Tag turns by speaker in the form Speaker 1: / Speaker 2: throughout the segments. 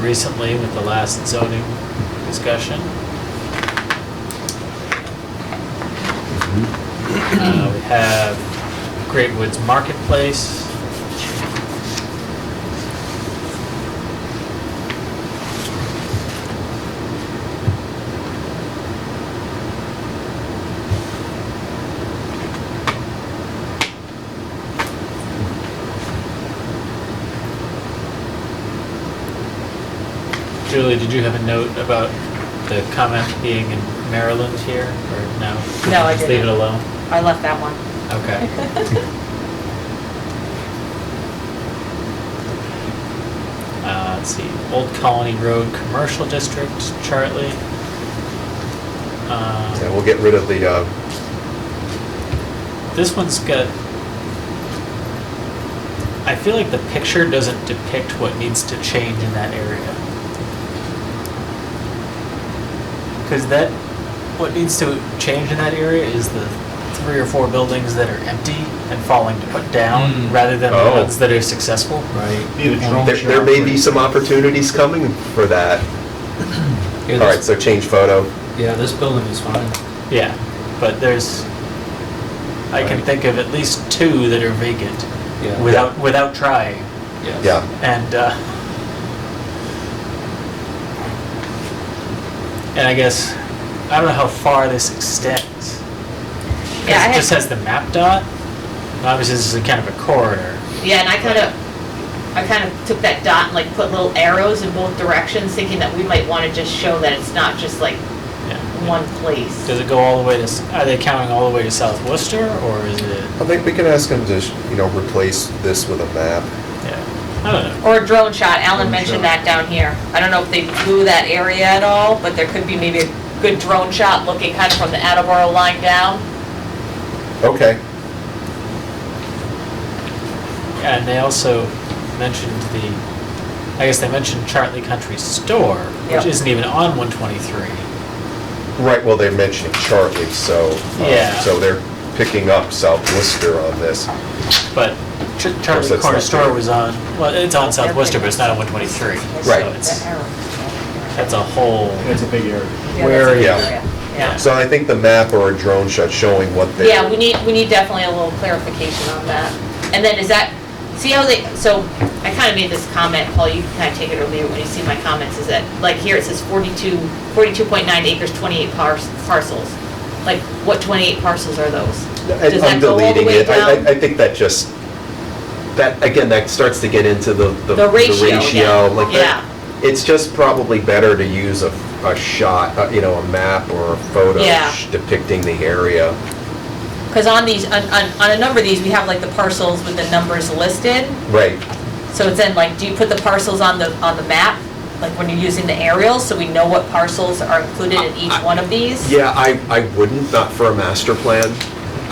Speaker 1: recently with the last zoning discussion. Uh, We have Great Woods Marketplace. Julie, did you have a note about the comment being in Maryland here, or no?
Speaker 2: No, I
Speaker 1: Just leave it
Speaker 2: didn't.
Speaker 1: alone?
Speaker 2: I left that one.
Speaker 1: Okay. Uh, let's see, Old Colony Road Commercial District, Charlie.
Speaker 3: Yeah,
Speaker 1: Um,
Speaker 3: we'll get rid of the, uh,
Speaker 1: This one's got, I feel like the picture doesn't depict what needs to change in that area. Because that, what needs to change in that area is the three or four buildings that are empty and falling to put down,
Speaker 4: Mm.
Speaker 1: rather than the
Speaker 3: Oh.
Speaker 1: ones that are successful.
Speaker 4: Right.
Speaker 5: Need a drone
Speaker 3: there there may be some opportunities coming for that. All right, so change photo.
Speaker 4: Yeah, this building is fine.
Speaker 1: Yeah, but there's, I can
Speaker 4: Right.
Speaker 1: think of at least two that are vacant
Speaker 4: Yeah.
Speaker 1: without, without trying.
Speaker 4: Yes.
Speaker 3: Yeah,
Speaker 1: And, uh, and I guess, I don't know how far this extends. 'Cause
Speaker 2: Yeah, I
Speaker 1: It
Speaker 2: had-
Speaker 1: just has the map dot. Obviously, this is a kind of a corridor.
Speaker 2: Yeah, and I kind of, I kind of took that dot and like put little arrows in both directions, thinking that we might want to just show that it's not just like
Speaker 1: Yeah.
Speaker 2: one place.
Speaker 1: Does it go all the way to, s- are they counting all the way to South Worcester or is it,
Speaker 3: I think we can ask him to, you know, replace this with a map.
Speaker 1: yeah, I don't know.
Speaker 2: Or a drone shot, Alan
Speaker 4: Drone
Speaker 2: mentioned that
Speaker 4: shot.
Speaker 2: down here. I don't know if they blew that area at all, but there could be maybe a good drone shot looking kind of from the Attleboro line down.
Speaker 3: Okay,
Speaker 1: And they also mentioned the, I guess they mentioned Chartley Country Store, which
Speaker 2: Yep.
Speaker 1: isn't even on 123.
Speaker 3: right, well, they're mentioning Charlie, so. uh,
Speaker 1: Yeah.
Speaker 3: So they're picking up South Worcester on this.
Speaker 1: But Ch-
Speaker 3: course,
Speaker 1: Chartley
Speaker 3: that's
Speaker 1: Corner
Speaker 3: not
Speaker 1: Store
Speaker 3: there.
Speaker 1: was on, well, it's on South
Speaker 2: Everything
Speaker 1: Worcester, but it's not on
Speaker 2: else.
Speaker 1: 123.
Speaker 3: Right.
Speaker 1: So it's,
Speaker 2: That arrow.
Speaker 1: that's a whole,
Speaker 5: That's a big area.
Speaker 2: Yeah,
Speaker 1: Where
Speaker 2: that's a good
Speaker 3: is- Yeah.
Speaker 2: area. Yeah,
Speaker 3: So I think the map or a drone shot showing what they're.
Speaker 2: yeah, we need, we need definitely a little clarification on that. And then is that, see how they, so I kind of made this comment, Paul, you can kind of take it or leave it when you see my comments, is that, like here it says 42, 42.9 acres, 28 pars- parcels. Like, what 28 parcels are those?
Speaker 3: I-
Speaker 2: Does that
Speaker 3: I'm
Speaker 2: go all the
Speaker 3: deleting
Speaker 2: way
Speaker 3: it. I,
Speaker 2: down?
Speaker 3: I- I think that just, that, again, that starts to get into the, the.
Speaker 2: The ratio, yeah.
Speaker 3: ratio, like that-
Speaker 2: Yeah.
Speaker 3: It's just probably better to use a, a shot, uh, you know, a map or a photo
Speaker 2: Yeah.
Speaker 3: sh- depicting the area.
Speaker 2: Because on these, on, on on a number of these, we have like the parcels with the numbers listed.
Speaker 3: Right,
Speaker 2: So it's then like, do you put the parcels on the, on the map? Like when you're using the aerials, so we know what parcels are included in each one of these?
Speaker 3: yeah, I, I wouldn't, not for a master plan.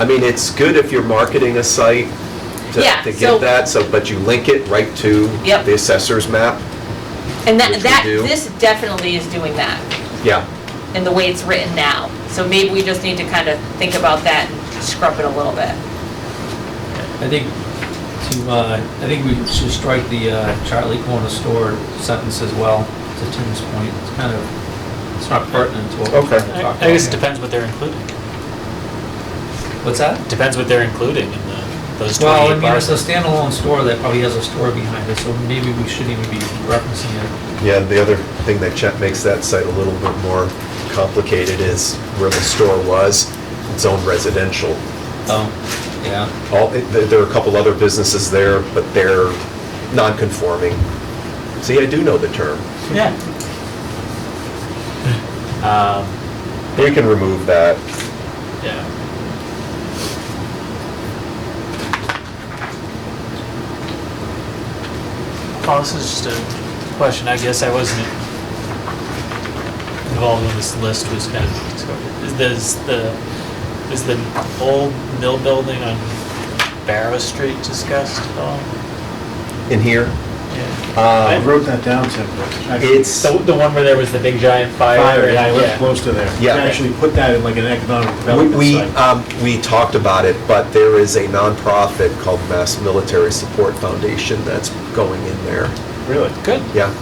Speaker 3: I mean, it's good if you're marketing a site to,
Speaker 2: Yeah,
Speaker 3: to
Speaker 2: so-
Speaker 3: get that, so, but you link it right to
Speaker 2: Yep.
Speaker 3: the assessor's map.
Speaker 2: And that,
Speaker 3: Which we
Speaker 2: that,
Speaker 3: do.
Speaker 2: this definitely is doing that
Speaker 3: Yeah,
Speaker 2: in the way it's written now. So maybe we just need to kind of think about that and scrub it a little bit.
Speaker 4: I think to, uh, I think we should strike the uh, Charlie Corner store sentence as well, to Tim's point. It's kind of, it's not pertinent to what we're
Speaker 3: Okay.
Speaker 4: trying to
Speaker 1: I
Speaker 4: talk about.
Speaker 1: I guess it
Speaker 4: here.
Speaker 1: depends what they're including.
Speaker 4: What's that?
Speaker 1: Depends what they're including in the, those
Speaker 4: Well, I
Speaker 1: 28
Speaker 4: mean, it's a
Speaker 1: parcels.
Speaker 4: standalone store that probably has a store behind it, so maybe we shouldn't even be referencing it.
Speaker 3: Yeah, the other thing that cha- makes that site a little bit more complicated is where the store was, it's owned residential.
Speaker 4: Oh, yeah.
Speaker 3: All, th- there are a couple other businesses there, but they're non-conforming. See, I do know the term.
Speaker 1: Yeah. Um,
Speaker 3: We can remove that.
Speaker 1: Yeah. Paul, this is just a question, I guess I wasn't involved when this list was kind of discovered. Is does the, is the old mill building on Barrow Street discussed at all?
Speaker 3: In here,
Speaker 1: Yeah.
Speaker 5: I
Speaker 3: um,
Speaker 5: wrote that down, Tim. Actually,
Speaker 3: it's,
Speaker 1: So the one where there was the big giant fire
Speaker 5: Fire,
Speaker 1: and I,
Speaker 5: yeah, we're
Speaker 1: yeah.
Speaker 5: close to there.
Speaker 3: Yeah.
Speaker 5: We Actually put that in like an economic
Speaker 3: we,
Speaker 5: development
Speaker 3: we,
Speaker 5: site.
Speaker 3: um, we talked about it, but there is a nonprofit called Mass Military Support Foundation that's going in there.
Speaker 5: Really?
Speaker 1: Good.
Speaker 3: Yeah.